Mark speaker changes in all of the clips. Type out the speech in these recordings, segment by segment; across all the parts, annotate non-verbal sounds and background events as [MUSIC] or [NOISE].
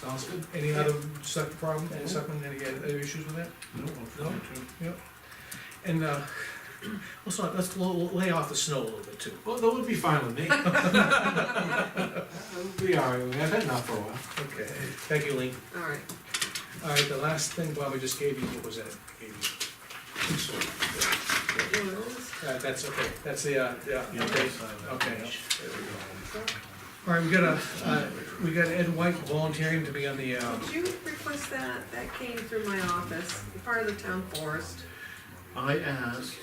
Speaker 1: Sounds good.
Speaker 2: Any other select problem,
Speaker 1: Yeah.
Speaker 2: selectmen, any other issues with that?
Speaker 1: No, I'll try
Speaker 2: No?
Speaker 1: to.
Speaker 2: And, uh, let's not, let's lo- lay off the snow a little bit too,
Speaker 1: Well, that would be fine with
Speaker 2: [LAUGHS]
Speaker 1: me. We'll be all right, we've had enough for a while.
Speaker 2: okay, thank you, Lean.
Speaker 3: All right,
Speaker 2: All right, the last thing Bobby just gave you, what was that? Gave you-
Speaker 3: you want this?
Speaker 2: Uh, that's okay, that's the, uh, yeah, okay, okay.
Speaker 1: There we go.
Speaker 2: All right, we got a, uh, we got Ed White volunteering to be on the, um,
Speaker 3: Did you request that? That came through my office, part of the town forest.
Speaker 4: I asked,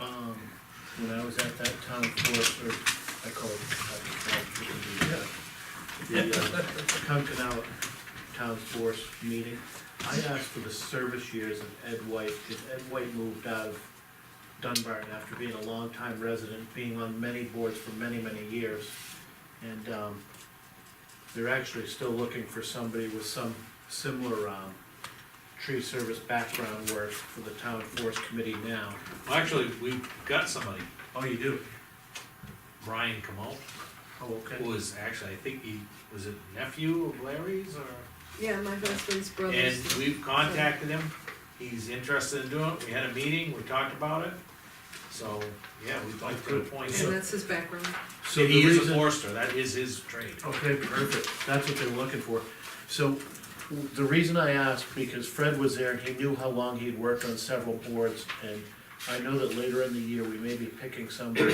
Speaker 4: um, when I was at that town forester, I called, I called, the, uh, the Concord Out Town Force meeting, I asked for the service years of Ed White, because Ed White moved out of Dunbarton after being a longtime resident, being on many boards for many, many years. And, um, they're actually still looking for somebody with some similar, um, tree service background work for the town forest committee now.
Speaker 5: Well, actually, we've got somebody,
Speaker 4: Oh, you do?
Speaker 5: Brian Kamal,
Speaker 4: Oh, okay.
Speaker 5: who is actually, I think he, was it nephew of Larry's or?
Speaker 3: Yeah, my husband's
Speaker 5: And
Speaker 3: brother's.
Speaker 5: we've contacted him, he's interested in doing it, we had a meeting, we talked about it. So, yeah, we'd like to appoint
Speaker 3: And
Speaker 5: him.
Speaker 3: that's his background.
Speaker 4: So
Speaker 5: And
Speaker 4: the
Speaker 5: he is a
Speaker 4: reason,
Speaker 5: forester, that is his trade.
Speaker 4: okay, perfect, that's what they're looking for. So, w- the reason I asked, because Fred was there and he knew how long he'd worked on several boards, and I know that later in the year, we may be picking somebody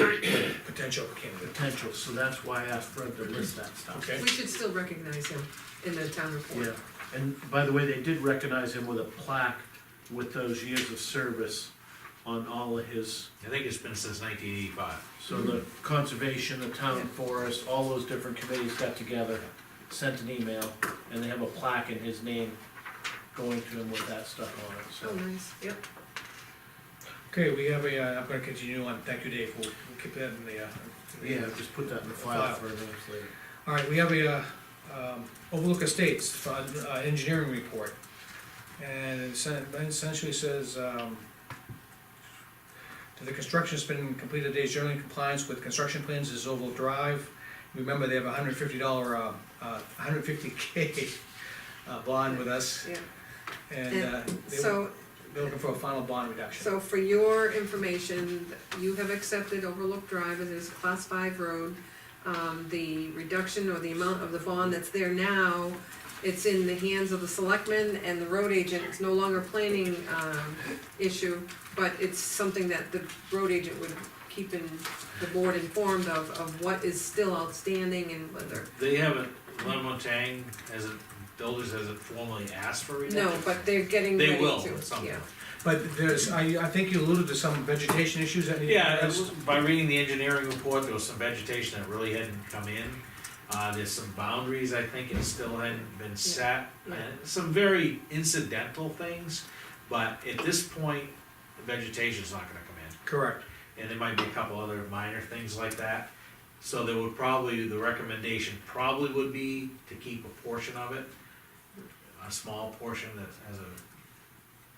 Speaker 2: potential candidate,
Speaker 4: potential, so that's why I asked Fred to list that stuff.
Speaker 2: okay?
Speaker 3: We should still recognize him in the town report.
Speaker 4: Yeah, and by the way, they did recognize him with a plaque with those years of service on all of his
Speaker 5: I think it's been since nineteen eighty-five.
Speaker 4: So the conservation, the town forest, all those different committees got together, sent an email, and they have a plaque in his name going to him with that stuff on
Speaker 3: Oh,
Speaker 4: it,
Speaker 3: nice, yep.
Speaker 2: Okay, we have a, uh, I'm gonna continue on, thank you, Dave, we'll, we'll keep that in the, uh.
Speaker 4: so. Yeah, just put that in the file for minutes later.
Speaker 2: All right, we have a, uh, um, Overlook Estates Fund, uh, engineering report. And it sen- it essentially says, um, the construction has been completed, days generally in compliance with construction plans is Overlook Drive. Remember, they have a hundred fifty dollar, uh, uh, hundred fifty K, [LAUGHS] uh, bond with us,
Speaker 3: Yeah,
Speaker 2: and, uh,
Speaker 3: and
Speaker 2: they-
Speaker 3: so,
Speaker 2: they're looking for a final bond reduction.
Speaker 3: so for your information, you have accepted Overlook Drive as a class five road. Um, the reduction or the amount of the bond that's there now, it's in the hands of the selectmen and the road agent. It's no longer planning, um, issue, but it's something that the road agent would keep in, the board informed of, of what is still outstanding and whether
Speaker 5: They haven't, Lemon Tang hasn't, Builders hasn't formally asked for it.
Speaker 3: No, but they're getting ready to, yeah.
Speaker 5: They will at some point.
Speaker 2: But there's, I, I think you alluded to some vegetation issues that need to be
Speaker 5: Yeah, it
Speaker 2: addressed.
Speaker 5: was- by reading the engineering report, there was some vegetation that really hadn't come in. Uh, there's some boundaries, I think, that still hadn't been set,
Speaker 3: yeah.
Speaker 5: and some very incidental things. But at this point, the vegetation's not gonna come in,
Speaker 2: Correct,
Speaker 5: and there might be a couple other minor things like that. So there would probably, the recommendation probably would be to keep a portion of it, a small portion that has a,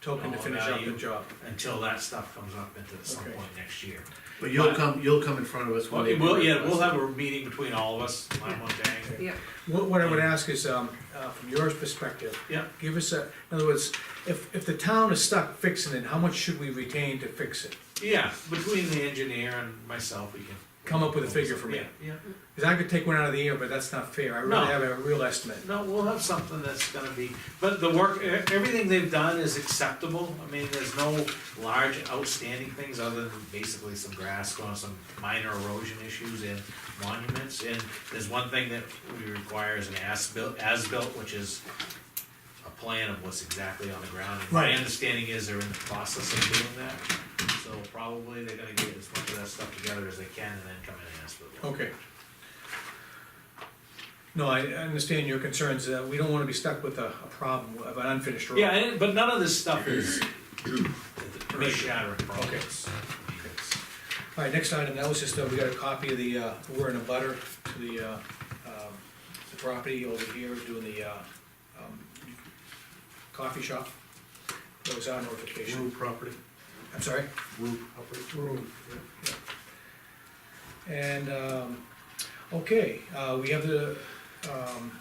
Speaker 2: token to
Speaker 5: All
Speaker 2: finish up the
Speaker 5: Oh, value.
Speaker 2: job.
Speaker 5: until that stuff comes up into some
Speaker 2: Okay.
Speaker 5: point next year.
Speaker 4: But you'll come, you'll come in front of us when
Speaker 5: Well,
Speaker 4: they.
Speaker 5: we'll, yeah, we'll have a meeting between all of us, Lime
Speaker 2: Okay.
Speaker 5: Tang.
Speaker 3: Yeah,
Speaker 2: What, what I would ask is, um, uh, from your perspective,
Speaker 5: Yeah,
Speaker 2: give us a, in other words, if, if the town is stuck fixing it, how much should we retain to fix it?
Speaker 5: yeah, between the engineer and myself, we can.
Speaker 2: Come up with a figure for me.
Speaker 5: Yeah, yeah.
Speaker 2: Cause I could take one out of the air, but that's not fair, I
Speaker 5: No.
Speaker 2: really have a real estimate.
Speaker 5: No, we'll have something that's gonna be, but the work, e- everything they've done is acceptable. I mean, there's no large outstanding things other than basically some grass going, some minor erosion issues and monuments. And there's one thing that we require is an as-built, as-built, which is a plan of what's exactly on the ground. And My
Speaker 2: Right.
Speaker 5: understanding is they're in the process of doing that, so probably they're gonna get as much of that stuff together as they can and then come in and ask for the.
Speaker 2: Okay. No, I, I understand your concerns, uh, we don't wanna be stuck with a, a problem of an unfinished road.
Speaker 5: Yeah, and, but none of this stuff is big shattering problems.
Speaker 2: All right, next item, that was just, uh, we got a copy of the, uh, we're in a butter to the, uh, um, the property over here doing the, uh, um, coffee shop. That was our notification.
Speaker 1: Mm.
Speaker 4: Rue property,
Speaker 2: I'm sorry?
Speaker 4: Rue property.
Speaker 2: And, um, okay, uh, we have the, um,